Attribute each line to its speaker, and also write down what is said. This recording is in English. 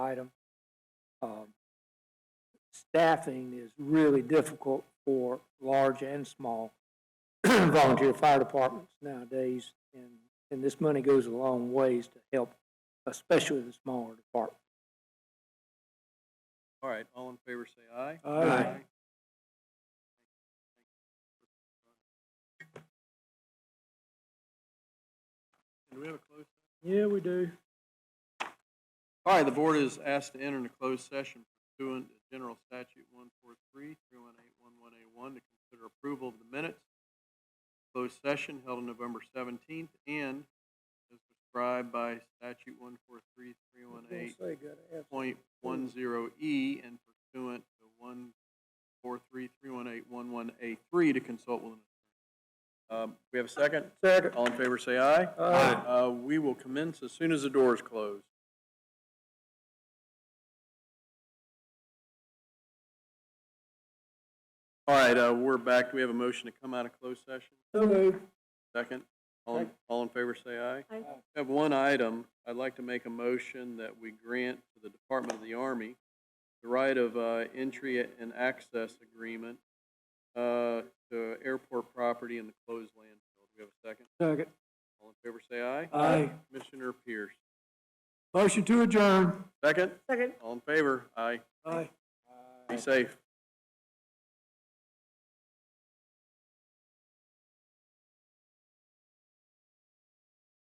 Speaker 1: item. Um, Staffing is really difficult for large and small volunteer fire departments nowadays. And, and this money goes a long ways to help, especially the smaller departments.
Speaker 2: All right, all in favor, say aye.
Speaker 1: Aye. Aye.
Speaker 2: Do we have a closed?
Speaker 1: Yeah, we do.
Speaker 2: All right, the board is asked to enter in a closed session pursuant to General Statute one four three, three one eight, one one eight one, to consider approval of the minutes. Closed session held on November seventeenth and as prescribed by statute one four three, three one eight, point one zero E and pursuant to one four three three one eight one one eight three to consult with an attorney. Um, we have a second?
Speaker 1: Second.
Speaker 2: All in favor, say aye.
Speaker 1: Aye.
Speaker 2: Uh, we will commence as soon as the door is closed. All right, uh, we're back. Do we have a motion to come out of closed session?
Speaker 1: So moved.
Speaker 2: Second, all, in-
Speaker 1: Second.
Speaker 2: all in favor, say aye.
Speaker 3: Aye.
Speaker 2: I have one item. I'd like to make a motion that we grant to the Department of the Army the right of uh, entry and access agreement uh, to airport property in the closed landfill. Do we have a second?
Speaker 1: Second.
Speaker 2: All in favor, say aye.
Speaker 1: Aye.
Speaker 2: Commissioner Pierce.
Speaker 1: Motion to adjourn.
Speaker 2: Second,
Speaker 3: Second.
Speaker 2: all in favor? Aye.
Speaker 1: Aye.
Speaker 2: Be safe.